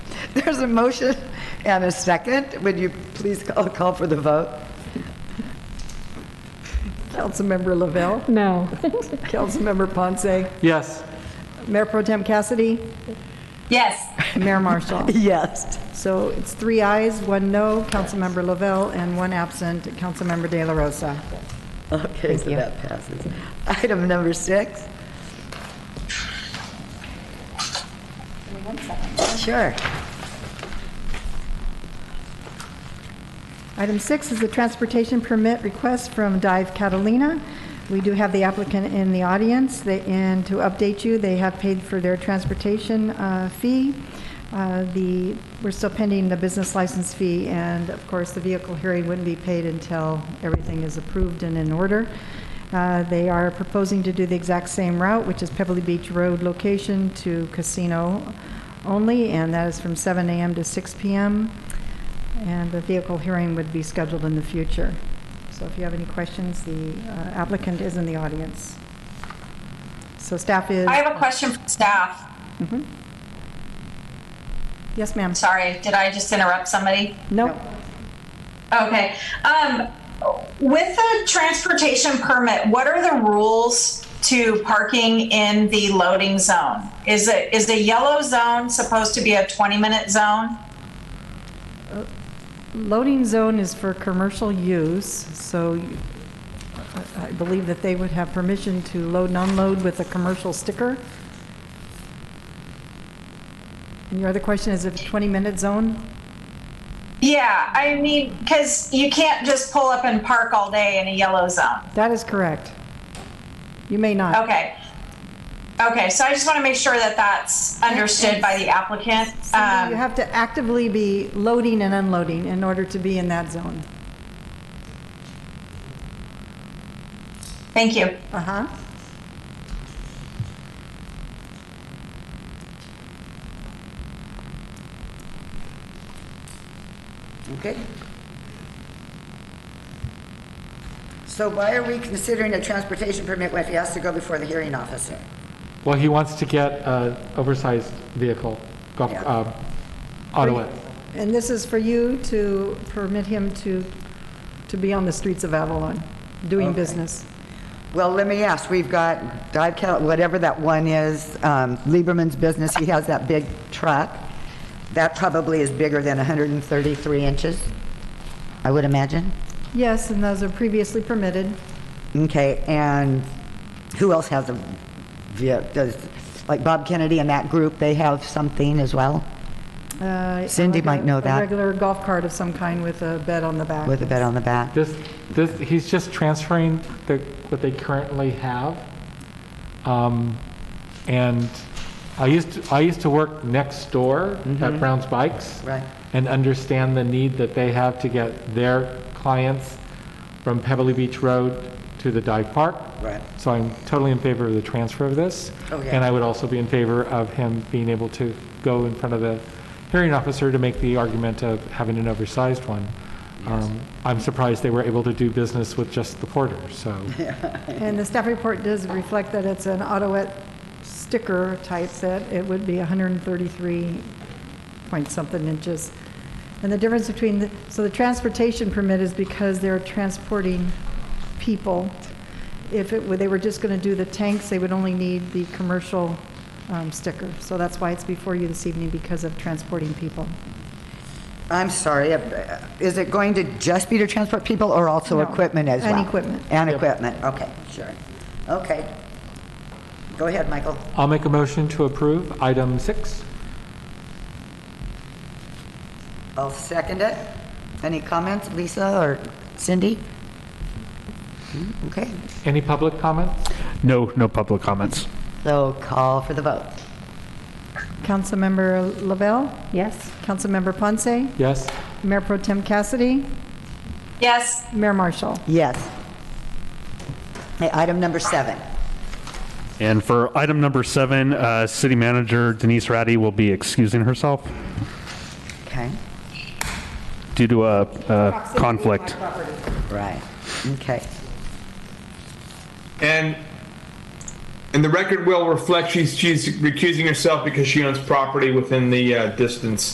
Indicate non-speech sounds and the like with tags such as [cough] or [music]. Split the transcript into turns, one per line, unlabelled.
[laughs] There's a motion and a second. Would you please call, call for the vote? Councilmember Lavelle,
[laughs]
No.
Councilmember Ponce,
Yes.
Mayor Pro Tem Cassidy,
Yes.
[laughs] Mayor Marshall.
yes.
So it's three ayes, one no, Councilmember Lavelle, and one absent, Councilmember De La Rosa.
Okay, so that passes. Item number six. Sure.
Item six is a transportation permit request from Dive Catalina. We do have the applicant in the audience, They- and to update you, they have paid for their transportation uh, fee. Uh, The, we're still pending the business license fee, and of course, the vehicle hearing wouldn't be paid until everything is approved and in order. Uh, They are proposing to do the exact same route, which is Pebbley Beach Road location to casino only, and that is from 7 a.m. to 6 p.m. And the vehicle hearing would be scheduled in the future. So if you have any questions, the uh, applicant is in the audience. So staff is,
I have a question for staff.
yes, ma'am.
Sorry, did I just interrupt somebody?
Nope.
Okay. Um, with the transportation permit, what are the rules to parking in the loading zone? Is it is the yellow zone supposed to be a 20 minute zone?
Loading zone is for commercial use, so you- I I believe that they would have permission to load and unload with a commercial sticker. And your other question is if 20-minute zone?
Yeah, I mean, because you can't just pull up and park all day in a yellow zone.
That is correct. You may not.
Okay. Okay, so I just want to make sure that that's understood by the applicant.
Cindy, You
Um,
have to actively be loading and unloading in order to be in that zone.
thank you.
Uh-huh.
Okay. So why are we considering a transportation permit when he has to go before the hearing officer?
Well, he wants to get an oversized vehicle, golf,
Yeah.
um, auto it.
And this is for you to permit him to, to be on the streets of Avalon, doing
Okay.
business.
Well, let me ask, we've got Dive Cal, whatever that one is, um, Lieberman's business, he has that big truck. That probably is bigger than 133 inches, I would imagine.
Yes, and those are previously permitted.
Okay, and who else has a, ve- does, like Bob Kennedy and that group, they have something as well?
Uh,
Cindy
like a-
might know that.
A regular golf cart of some kind with a bed on the back.
With a bed on the back?
This, this, he's just transferring the, what they currently have. Um, and I used, to- I used to work next door at Brown's Bikes.
Mm-hmm. Right.
And understand the need that they have to get their clients from Pebbley Beach Road to the dive park.
Right.
So I'm totally in favor of the transfer of this.
Okay.
And I would also be in favor of him being able to go in front of the hearing officer to make the argument of having an oversized one. Um, I'm surprised they were able to do business with just the Porter, so,
And the staff report does reflect that it's an autoet sticker type set. It would be 133 point something inches. And the difference between, the- so the transportation permit is because they're transporting people. If it were, they were just going to do the tanks, they would only need the commercial um, sticker. So that's why it's before you this evening, because of transporting people.
I'm sorry, uh, is it going to just be to transport people or also
No,
equipment as well?
and equipment.
And equipment, okay, sure. Okay. Go ahead, Michael.
I'll make a motion to approve item six.
I'll second it. Any comments, Lisa or Cindy? Hmm, Okay,
Any public comments?
No, no public comments.
so call for the vote.
Councilmember Lavelle?
Yes.
Councilmember Ponce?
Yes?
Mayor Pro Tem Cassidy?
Yes.
Mayor Marshall?
Yes. Okay, Item number seven.
And for item number seven, uh, City Manager Denise Ratty will be excusing herself
Okay,
due to a a conflict.
right, okay.
And and the record will reflect she's she's recusing herself because she owns property within the uh, distance